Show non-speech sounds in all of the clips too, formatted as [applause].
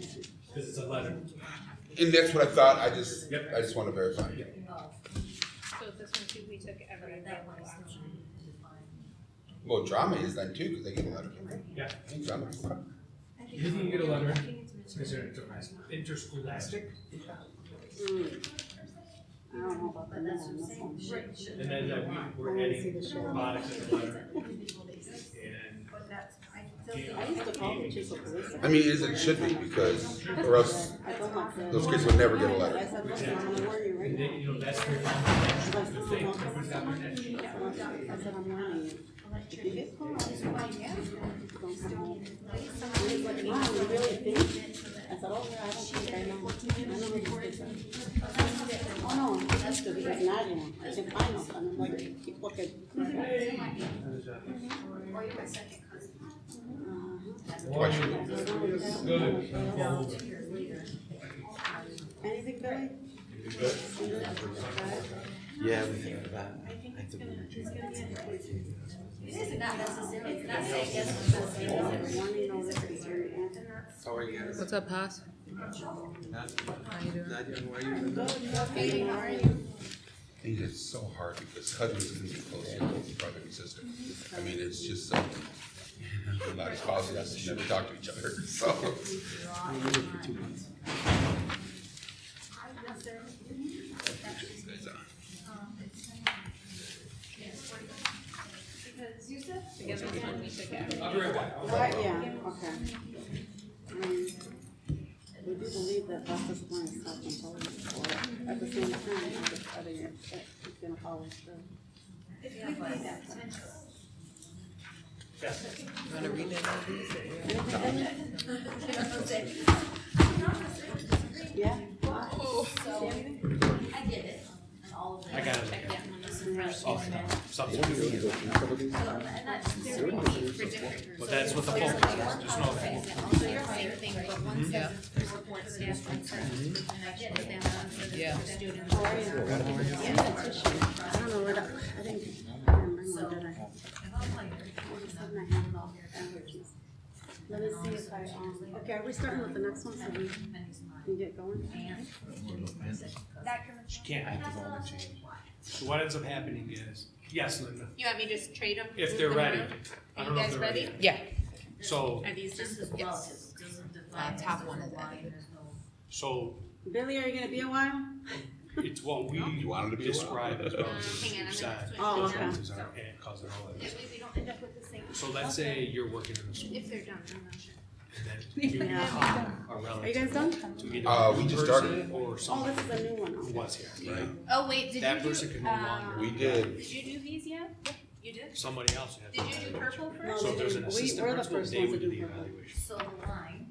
because it's a letter. And that's what I thought, I just, Yep. I just wanna verify. So this one too, we took every available option. Well, drama is then too, cause they get a letter. Yeah. I think drama. You didn't get a letter, it's considered interscholastic. interscholastic, I don't know about the men on this one. and then uh, we, we're adding robotics in the letter. And I used to call the chief a police. I mean, as it should be, because, or else I told my friend. those kids would never get a I letter. said, listen, I'm gonna warn you right And now. then, you know, that's where that's the thing, everyone's got their attention. I said, I'm warning you. If you get caught, don't come home. And he's like, Mom, you really think? I said, oh, yeah, I don't think I know. I know what you think. Oh, no, I'm tested because now you know. I said, I know. And I'm like, keep looking. Uh-huh. One, Good. Anything, Billy? Yeah, we think of that. I think we Warning notice is very anti. How are you guys? What's up, Haas? Not, How you doing? not doing, where you been doing? And it's so hard because cousins can be close, you know, brother and sister. I mean, it's just so, [laughs] a lot of spouses that's never talk to each other, [laughs] so. Because this one we took every. I'll be right back. Right, yeah, okay. Um, We do believe that Dr. Swan is self-controlled, but at the same time, I just, I think it's, it's gonna follow through. Wanna read it? Yeah? I got it. But that's what the focus is, just know that. So you're same thing, but Mm-hmm. one says it's to report staff on services, Mm-hmm. and I get it, that one says Yeah. it's for students. I don't know where that, I think, I didn't bring one, did I? All of a sudden I have it all allergies. Let me see if I, um, okay, are we starting with the next one so we can get going? She can't. So what ends up happening is, yes, Linda, You want me to just trade them? if they're ready. I Are don't you know if guys they're ready? Yeah. So, Are these just? Yes. Uh, top one is edited. so Billy, are you gonna be a while? it's what You we wanted to be. describe as Um, well. hang on, I'm gonna. switch Oh, these up. okay. Signs are- and cause and all that. That way we don't end up with the same, So let's say you're working in a school, if they're done, I'm not sure. and then you Yeah. are Are you relative guys done? to either Uh, a we just person started. or Oh, someone this is a new one. who okay. was here. Right. Oh, wait, did you do? That person can no longer- um, We did, Did you do these yet? You did? Somebody else had. Did you do purple first? So if there's an We- assistant we're the principal, first they ones would to do do the purple. evaluation. So the line,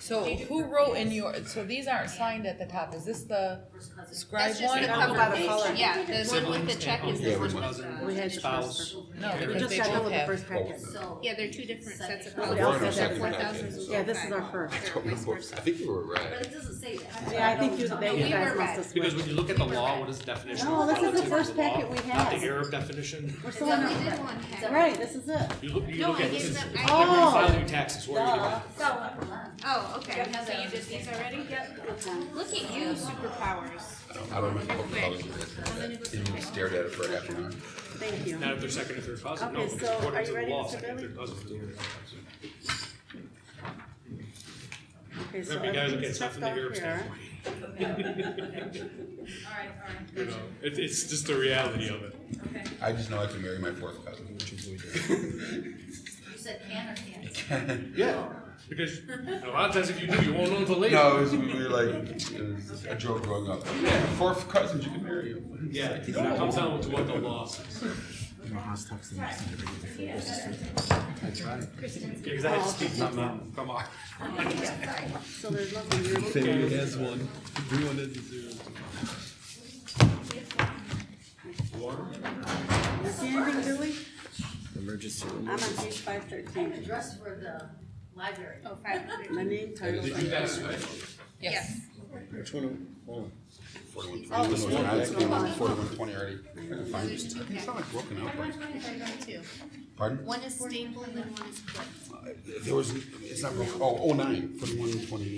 So who wrote in your, so these aren't signed at the top, is this the first cousin, scribe That's just one? the I don't know cover about the page. color. Yeah, the one with Siblings the and check is uncles, Yeah, the one we went- with We the. had the Spouse. first No, one. We because just they got done both with the have. first packet. so. Yeah, they're two different sets of Nobody colors. else has They're that. Oh, four thousands. Yeah, this is our first. I think you were But right. it doesn't say that. Yeah, I think you, that you We guys were must red. have Because switched. when you look at the law, what is the definition No, of this is the relative to first the law? packet we Not had. the Arab definition. We're still So on we our, did one pack. right, this is it. You look, you No, look I at gave this, them- when you I- file your taxes, what are you Duh. doing? So, Oh, okay, so you did these already? Okay. Look at you, superpowers. Um, I don't remember what colors it is. And you stared at it for half an hour. Thank you. Not if they're second or third cousin, no, Okay, because so are according you to the ready, law, Mr. second, and Bailey? third cousin. is the original cousin. Okay, so Remember, you gotta look at everything's stuff checked from the out Arab here. standpoint, alright, you alright. know, it, it's just the reality of it. Okay. I just know I can marry my fourth cousin. You said can or can't? Yeah. Because a lot of times if you do, you won't know until later. [laughs] No, it was, we were like, it was a joke growing up. Yeah, fourth cousins, you can marry him. Yeah, it comes down to what the law says. Because I had to speak my mind, come on. So there's nothing here. Faye has one. Everyone has a zero. You see anything, Billy? Emergency I'm on page five thirteen. Address for the library. Oh, five hundred. My name, title. guys switch? Yes. Which one? Oh, Forty-one twenty, this one, I came on forty-one twenty already. I can find it. It's not like broken up, right? Pardon? One is stapled and one is clipped. There was, it's not broken, oh, oh nine, forty-one twenty.